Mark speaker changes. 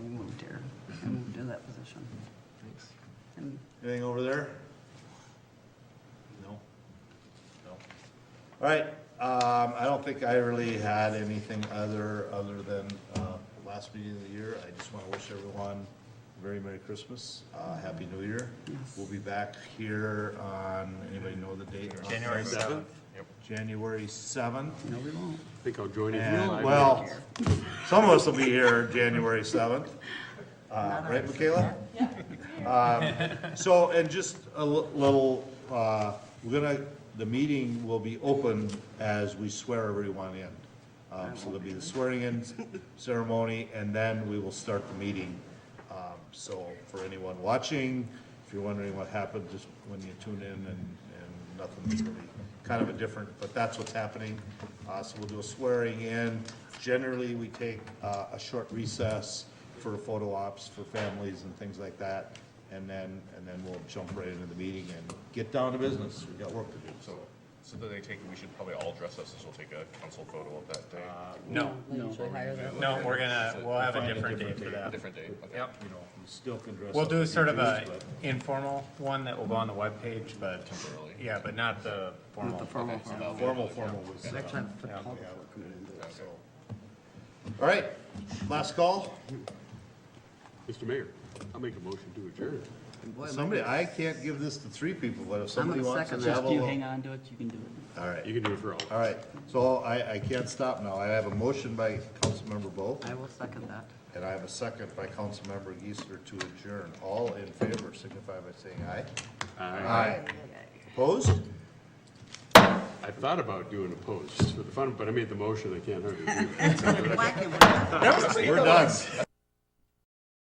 Speaker 1: that position.
Speaker 2: Thanks.
Speaker 1: And
Speaker 3: Anything over there? No? No. All right, um, I don't think I really had anything other, other than, uh, last meeting of the year. I just wanna wish everyone a very Merry Christmas, uh, Happy New Year. We'll be back here on, anybody know the date?
Speaker 4: January seventh.
Speaker 3: January seventh.
Speaker 1: no, we won't.
Speaker 2: I think I'll join you.
Speaker 3: And, well, some of us will be here January 7th. Uh, Right, Michaela? Um, So, and just a li- little, uh, we're gonna, the meeting will be open as we swear everyone in. Um, So there'll be the swearing-in ceremony, and then we will start the meeting. Um, So for anyone watching, if you're wondering what happened, just when you tune in and, and nothing's really, kind of a different, but that's what's happening. Uh, so we'll do a swearing in. Generally, we take, uh, a short recess for photo ops for families and things like that. And then, and then we'll jump right into the meeting and get down to business. We've got work to do, so.
Speaker 4: So then they take, we should probably all dress up, so we'll take a council photo of that day.
Speaker 2: Uh,
Speaker 5: No, no, we're gonna, we'll have a different date for that.
Speaker 4: Different day, okay.
Speaker 5: Yep.
Speaker 3: You know, we still can dress
Speaker 5: We'll
Speaker 3: up
Speaker 5: do
Speaker 3: if
Speaker 5: sort
Speaker 3: you
Speaker 5: of
Speaker 3: choose,
Speaker 5: a
Speaker 3: but-
Speaker 5: informal one that will go on the webpage, but,
Speaker 4: Temporarily.
Speaker 5: yeah, but not the
Speaker 1: Not the
Speaker 5: formal.
Speaker 1: formal
Speaker 4: Okay, so that'll
Speaker 1: part.
Speaker 4: be-
Speaker 3: Formal, formal was. uh,
Speaker 1: Next time, the public
Speaker 3: yeah.
Speaker 1: will come in and do it.
Speaker 3: So. All right, last call.
Speaker 2: Mr. Mayor, I'll make a motion to adjourn.
Speaker 3: Somebody, I can't give this to three people, but if
Speaker 1: I'm
Speaker 3: somebody
Speaker 1: gonna
Speaker 3: wants to
Speaker 1: second that. Just you
Speaker 3: gavel.
Speaker 1: hang on to it, you can do it.
Speaker 3: All right,
Speaker 2: You can do it for all.
Speaker 3: all right. So I, I can't stop now. I have a motion by Councilmember Bo,
Speaker 1: I will second that.
Speaker 3: and I have a second by Councilmember Geisler to adjourn. All in favor, signify by saying aye. Aye. Opposed?
Speaker 2: I thought about doing a post just for the fun, but I made the motion, I can't hardly do it.
Speaker 3: We're done.